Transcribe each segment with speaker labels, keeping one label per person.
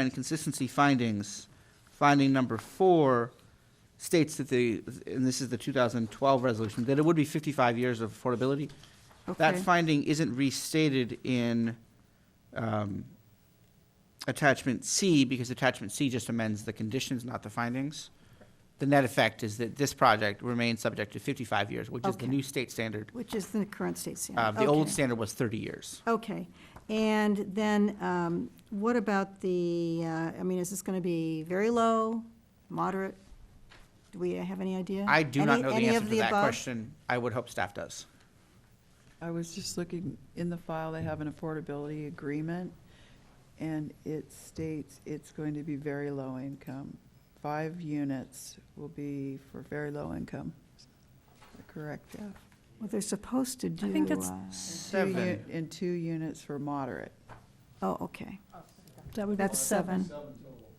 Speaker 1: and consistency findings, finding number four states that the, and this is the 2012 resolution, that it would be 55 years of affordability. That
Speaker 2: Okay.
Speaker 1: finding isn't restated in um, attachment C, because attachment C just amends the conditions, not the findings. The net effect is that this project remains subject to 55 years, which is the
Speaker 2: Okay.
Speaker 1: new state standard.
Speaker 2: Which is the current state
Speaker 1: Uh,
Speaker 2: standard?
Speaker 1: The old
Speaker 2: Okay.
Speaker 1: standard was 30 years.
Speaker 2: Okay, and then um, what about the, uh, I mean, is this going to be very low, moderate? Do we have any idea?
Speaker 1: I do not
Speaker 2: Any-
Speaker 1: know the
Speaker 2: any
Speaker 1: answer
Speaker 2: of
Speaker 1: to
Speaker 2: the
Speaker 1: that
Speaker 2: above?
Speaker 1: question. I would hope staff does.
Speaker 3: I was just looking, in the file, they have an affordability agreement, and it states it's going to be very low income. Five units will be for very low income. Correct, Jeff?
Speaker 2: Well, they're supposed to do.
Speaker 4: I think that's-
Speaker 2: uh,
Speaker 3: Two
Speaker 1: Seven.
Speaker 3: uni- And two units for moderate.
Speaker 2: Oh, okay,
Speaker 4: That would be
Speaker 2: that's seven.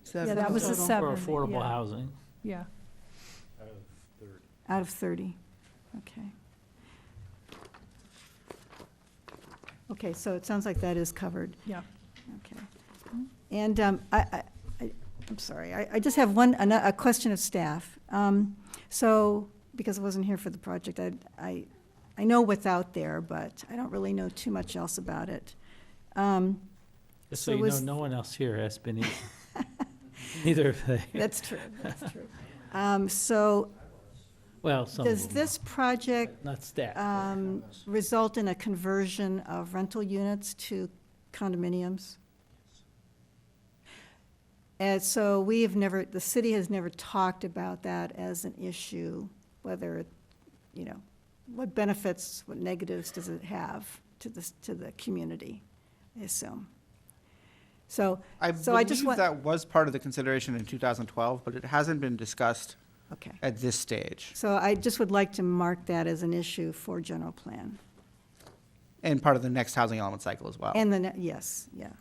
Speaker 3: Seven
Speaker 4: that was a
Speaker 3: total.
Speaker 4: se- seven,
Speaker 5: For affordable
Speaker 4: yeah.
Speaker 5: housing.
Speaker 4: Yeah.
Speaker 2: Out of 30, okay. Okay, so it sounds like that is covered.
Speaker 4: Yeah.
Speaker 2: Okay. And um, I, I- I, I'm sorry, I, I just have one, ano- a question of staff. Um, So, because I wasn't here for the project, I, I, I know what's out there, but I don't really know too much else about it. Um,
Speaker 5: Just
Speaker 2: So
Speaker 5: so you know,
Speaker 2: was-
Speaker 5: no one else here has been, either- neither have they.
Speaker 2: That's true, that's true. Um, So,
Speaker 5: Well, some
Speaker 2: does
Speaker 5: of them,
Speaker 2: this project
Speaker 5: not staff. but-
Speaker 2: um, result in a conversion of rental units to condominiums? And so we have never, the city has never talked about that as an issue, whether, you know, what benefits, what negatives does it have to the, to the community, I assume. So,
Speaker 1: I
Speaker 2: So I just
Speaker 1: believe
Speaker 2: want-
Speaker 1: that was part of the consideration in 2012, but it hasn't been discussed
Speaker 2: okay.
Speaker 1: at this stage.
Speaker 2: So I just would like to mark that as an issue for general plan.
Speaker 1: And part of the next housing element cycle as well.
Speaker 2: And the, ne- yes, yeah. Yeah.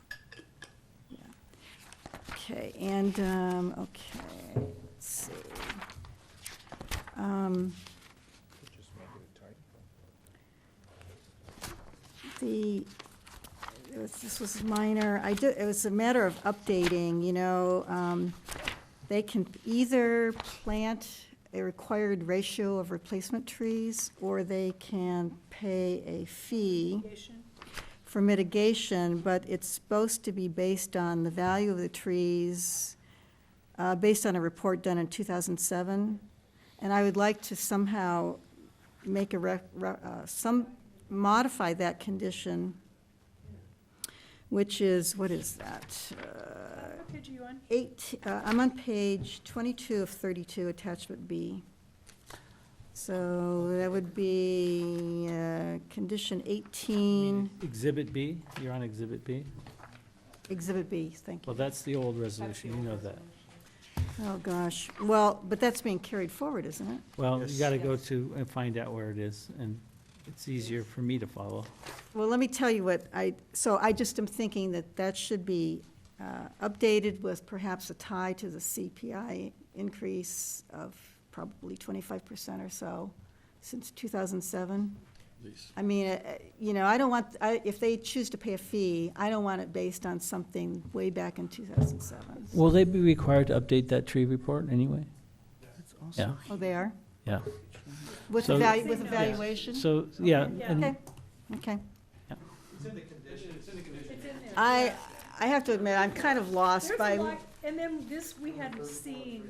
Speaker 2: Okay, and, um, okay, let's see. Um, The, it was- this was minor, I did, it was a matter of updating, you know, um, they can either plant a required ratio of replacement trees, or they can pay a fee for mitigation, but it's supposed to be based on the value of the trees, uh, based on a report done in 2007. And I would like to somehow make a, rec- re- uh, some, modify that condition, which is, what is that? Uh,
Speaker 4: page you on?
Speaker 2: Eight, uh, I'm on page 22 of 32, attachment B. So that would be uh, condition 18,
Speaker 5: Exhibit B, you're on Exhibit B.
Speaker 2: exhibit B, thank you.
Speaker 5: Well, that's the old resolution, you know that.
Speaker 2: Oh, gosh. Well, but that's being carried forward, isn't it?
Speaker 5: Well, you gotta go to and find out where it is, and it's easier for me to follow.
Speaker 2: Well, let me tell you what I, so I just am thinking that that should be uh, updated with perhaps a tie to the CPI increase of probably 25% or so since 2007. I mean, uh, uh, you know, I don't want, I- if they choose to pay a fee, I don't want it based on something way back in 2007.
Speaker 5: Will they be required to update that tree report anyway? Yeah,
Speaker 2: Oh, they are?
Speaker 5: yeah.
Speaker 2: With
Speaker 5: So-
Speaker 2: evalu- with evaluation?
Speaker 5: So, yeah,
Speaker 2: Okay,
Speaker 5: and
Speaker 2: okay.
Speaker 5: Yeah.
Speaker 2: I, I have to admit, I'm kind of lost
Speaker 4: There's a
Speaker 2: by,
Speaker 4: lot, and then this we hadn't seen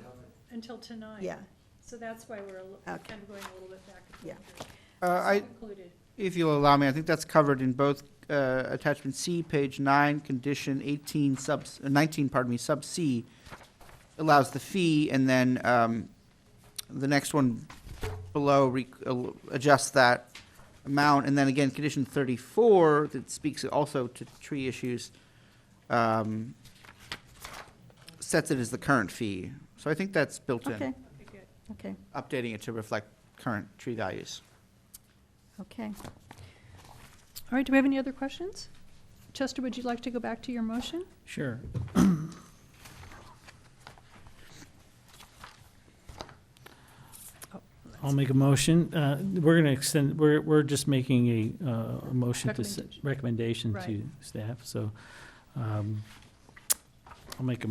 Speaker 4: until tonight.
Speaker 2: yeah,
Speaker 4: So that's why we're a li-
Speaker 2: Okay.
Speaker 4: kind of going a little bit back. and
Speaker 2: Yeah.
Speaker 4: forth
Speaker 1: Uh,
Speaker 4: here.
Speaker 1: I,
Speaker 4: It's included.
Speaker 1: if you'll allow me, I think that's covered in both uh, attachment C, page nine, condition 18, sub, uh, 19, pardon me, sub C allows the fee, and then um, the next one below re- al- adjusts that amount. And then again, condition 34, that speaks also to tree issues, um, sets it as the current fee. So I think that's built
Speaker 2: okay,
Speaker 1: in,
Speaker 4: Okay, good.
Speaker 2: okay,
Speaker 1: updating it to reflect current tree values.
Speaker 2: okay.
Speaker 4: All right, do we have any other questions? Chester, would you like to go back to your motion?
Speaker 5: sure. I'll make a motion. Uh, We're going to extend, we're, we're just making a, uh, a motion to, s- recommendation to
Speaker 4: Recommendation.
Speaker 5: staff, so um, I'll make a